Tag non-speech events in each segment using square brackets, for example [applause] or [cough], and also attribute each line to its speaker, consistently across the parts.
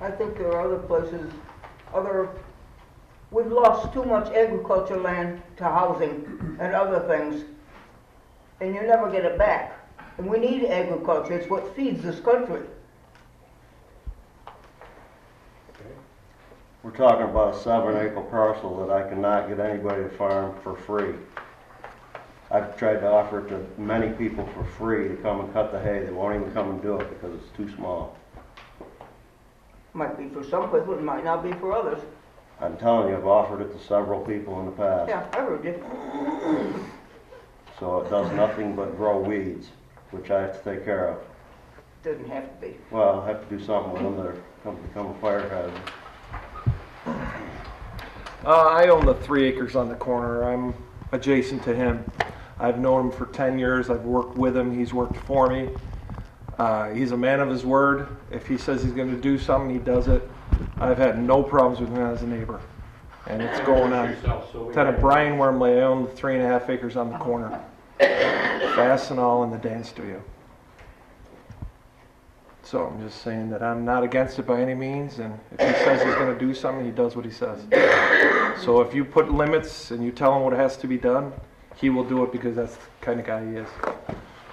Speaker 1: I think there are other places, other, we've lost too much agriculture land to housing and other things, and you never get it back. And we need agriculture, it's what feeds this country.
Speaker 2: We're talking about a seven acre parcel that I cannot get anybody to farm for free. I've tried to offer it to many people for free to come and cut the hay. They won't even come and do it because it's too small.
Speaker 1: Might be for some people, it might not be for others.
Speaker 2: I'm telling you, I've offered it to several people in the past.
Speaker 1: Yeah, I heard you.
Speaker 2: So it does nothing but grow weeds, which I have to take care of.
Speaker 1: Doesn't have to be.
Speaker 2: Well, I have to do something with them. They're going to become a fire hazard.
Speaker 3: Uh, I own the three acres on the corner. I'm adjacent to him. I've known him for 10 years. I've worked with him. He's worked for me. Uh, he's a man of his word. If he says he's going to do something, he does it. I've had no problems with him as a neighbor. And it's going on. Tenant Brian Wormley, I own the three and a half acres on the corner. Fast and all in the dance studio. So I'm just saying that I'm not against it by any means, and if he says he's gonna do something, he does what he says. So if you put limits and you tell him what has to be done, he will do it because that's the kind of guy he is.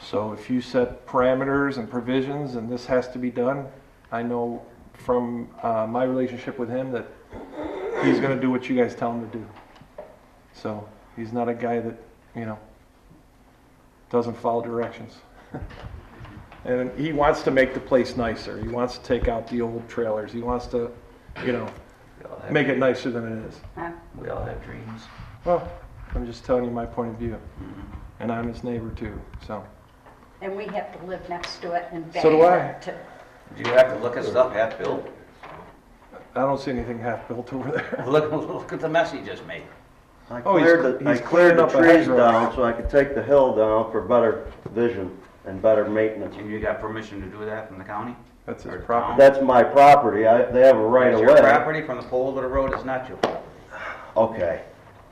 Speaker 3: So if you set parameters and provisions and this has to be done, I know from uh, my relationship with him that he's gonna do what you guys tell him to do. So he's not a guy that, you know, doesn't follow directions. [laughs] And he wants to make the place nicer. He wants to take out the old trailers. He wants to, you know,
Speaker 4: We all have-
Speaker 3: make it nicer than it is.
Speaker 5: Um,
Speaker 4: We all have dreams.
Speaker 3: Well, I'm just telling you my point of view. And I'm his neighbor too, so.
Speaker 5: And we have to live next to it and beg
Speaker 3: So do
Speaker 5: for
Speaker 3: I.
Speaker 5: it to-
Speaker 4: Do you have to look at stuff half-built?
Speaker 3: I don't see anything half-built over there. [laughs]
Speaker 4: [laughs] Look, look at the mess he just made.
Speaker 2: I
Speaker 3: Oh, he's-
Speaker 2: cleared the, I
Speaker 3: he's
Speaker 2: cleared
Speaker 3: clearing
Speaker 2: the
Speaker 3: up a hedge
Speaker 2: trees
Speaker 3: row.
Speaker 2: down so I could take the hill down for better vision and better maintenance.
Speaker 4: And you got permission to do that from the county?
Speaker 3: That's his
Speaker 4: Or
Speaker 3: property.
Speaker 2: That's my property. I, they have a right
Speaker 4: It's
Speaker 2: of
Speaker 4: your
Speaker 2: way.
Speaker 4: property from the pole to the road is not your property.
Speaker 2: Okay.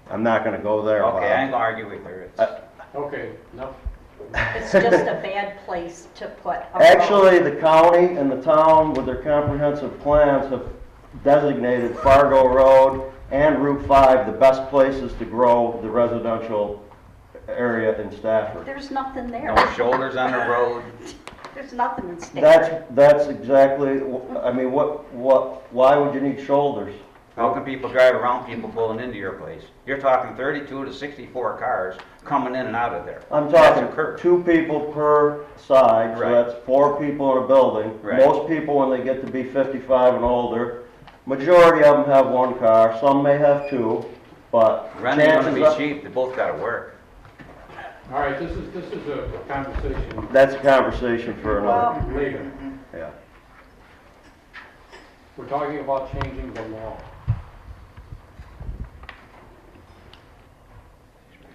Speaker 2: I'm not gonna go there, Bob.
Speaker 4: Okay, I ain't gonna argue with her. It's-
Speaker 2: Uh,
Speaker 6: Okay, no,
Speaker 5: It's just a
Speaker 2: [laughs]
Speaker 5: bad place to put a road.
Speaker 2: Actually, the county and the town with their comprehensive plans have designated Fargo Road and Route 5 the best places to grow the residential area in Stafford.
Speaker 5: There's nothing there.
Speaker 4: No shoulders on the road.
Speaker 5: There's nothing in Stafford.
Speaker 2: That's, that's exactly, wh- I mean, what, what, why would you need shoulders?
Speaker 4: How can people drive around people pulling into your place? You're talking thirty-two to sixty-four cars coming in and out of there.
Speaker 2: I'm
Speaker 4: That's a
Speaker 2: talking
Speaker 4: curve.
Speaker 2: two people per side, so
Speaker 4: Right.
Speaker 2: that's four people in a building.
Speaker 4: Right.
Speaker 2: Most people, when they get to be 55 and older, majority of them have one car, some may have two, but
Speaker 4: Rent ain't gonna
Speaker 2: chances
Speaker 4: be
Speaker 2: are...
Speaker 4: cheap, they both gotta work.
Speaker 6: all right, this is, this is a conversation
Speaker 2: That's a conversation for another,
Speaker 5: Well,
Speaker 6: later.
Speaker 2: yeah.
Speaker 6: We're talking about changing the law.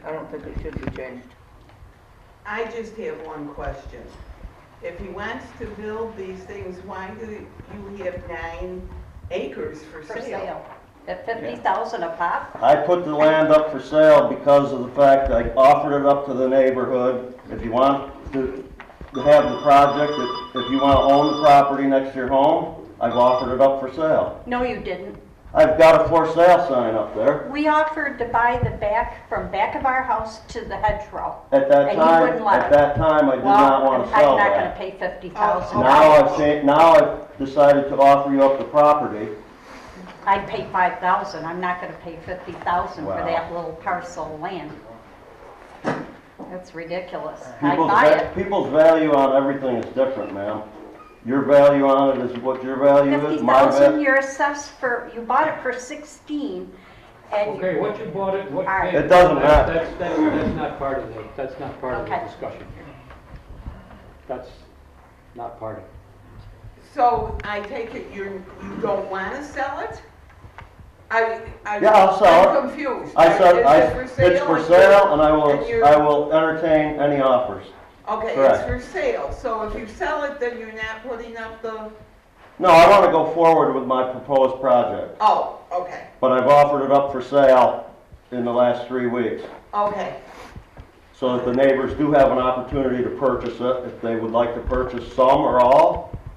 Speaker 1: I don't think it should be changed.
Speaker 7: I just have one question. If he wants to build these things, why do you have nine acres for
Speaker 5: for
Speaker 7: sale?
Speaker 5: sale, at fifty thousand a pop,
Speaker 2: I put the land up for sale because of the fact that I offered it up to the neighborhood. If you want to to have the project, if if you want to own the property next to your home, I've offered it up for sale.
Speaker 5: no you didn't.
Speaker 2: I've got a for sale sign up there.
Speaker 5: We offered to buy the back, from back of our house to the hedgerow.
Speaker 2: At
Speaker 5: And
Speaker 2: that
Speaker 5: you
Speaker 2: time,
Speaker 5: wouldn't let
Speaker 2: at
Speaker 5: it.
Speaker 2: that time, I did not want to sell
Speaker 5: Well, I'm not gonna
Speaker 2: that. Oh,
Speaker 5: pay fifty thousand.
Speaker 2: Now I've changed, now I've decided to offer you up the property.
Speaker 5: I'd pay five thousand, I'm not gonna pay fifty thousand for
Speaker 2: Wow.
Speaker 5: that little parcel of land. That's ridiculous. I
Speaker 2: People's,
Speaker 5: buy
Speaker 2: va-
Speaker 5: it.
Speaker 2: people's value on everything is different, ma'am. Your value on it is what your value
Speaker 5: Fifty
Speaker 2: is, my
Speaker 5: thousand,
Speaker 2: value.
Speaker 5: you're assessed for, you bought it for sixteen, and
Speaker 6: Okay, what you bought it, what.
Speaker 5: All right.
Speaker 2: It doesn't
Speaker 6: That's-
Speaker 2: matter.
Speaker 6: That's, that's, that's not part of the, that's not part of the
Speaker 5: Okay.
Speaker 6: discussion here. That's not part of it.
Speaker 7: So I take it you're, you don't want to sell it? I, I.
Speaker 2: Yeah, I'll sell it.
Speaker 7: I'm confused.
Speaker 2: I said, I,
Speaker 7: Is it
Speaker 2: it's for
Speaker 7: and
Speaker 2: sale
Speaker 7: you're-
Speaker 2: and I
Speaker 7: and
Speaker 2: will,
Speaker 7: you're-
Speaker 2: I will entertain any offers.
Speaker 7: Okay,
Speaker 2: correct.
Speaker 7: it's for sale, so if you sell it, then you're not putting up the,
Speaker 2: No, I want to go forward with my proposed project,
Speaker 7: oh, okay,
Speaker 2: but I've offered it up for sale in the last three weeks.
Speaker 7: okay.
Speaker 2: So that the neighbors do have an opportunity to purchase it if they would like to purchase some or all.